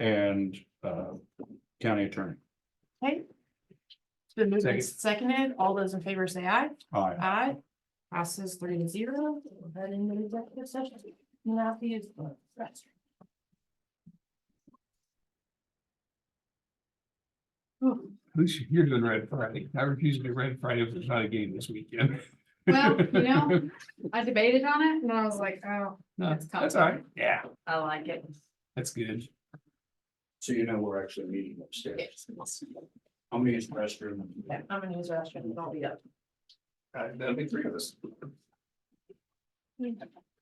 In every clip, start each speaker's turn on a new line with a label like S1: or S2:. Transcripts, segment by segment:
S1: and uh county attorney.
S2: It's been moved and
S3: Second.
S2: seconded. All those in favor say aye.
S1: Aye.
S2: Aye. Passes three to zero. We'll head into executive session. Not the use of the restroom.
S3: Who's, you're doing Red Friday. I refuse to do Red Friday if there's not a game this weekend.
S4: Well, you know, I debated on it and I was like, oh,
S3: No,
S4: That's
S3: that's all right. Yeah,
S2: I like it.
S3: that's good.
S1: So you know, we're actually meeting upstairs. How many is restroom?
S2: Yeah, I'm gonna use the restroom. Don't be up.
S3: Uh, That'll be three of us.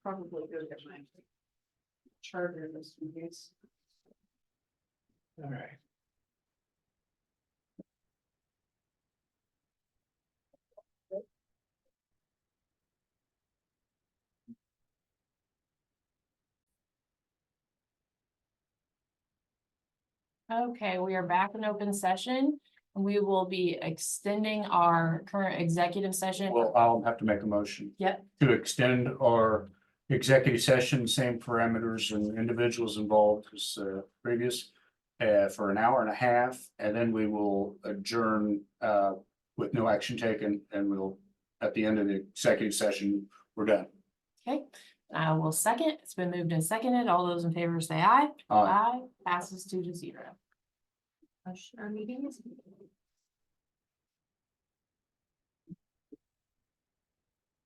S2: Probably go get my charger this week.
S3: All right.
S2: Okay, we are back in open session. We will be extending our current executive session.
S1: Well, I'll have to make a motion.
S2: Yep.
S1: To extend our executive session, same parameters and individuals involved as uh, previous. Uh, for an hour and a half, and then we will adjourn uh with no action taken, and we'll. At the end of the executive session, we're done.
S2: Okay, I will second. It's been moved and seconded. All those in favor say aye.
S1: Aye.
S2: Aye, passes two to zero. Our meeting is.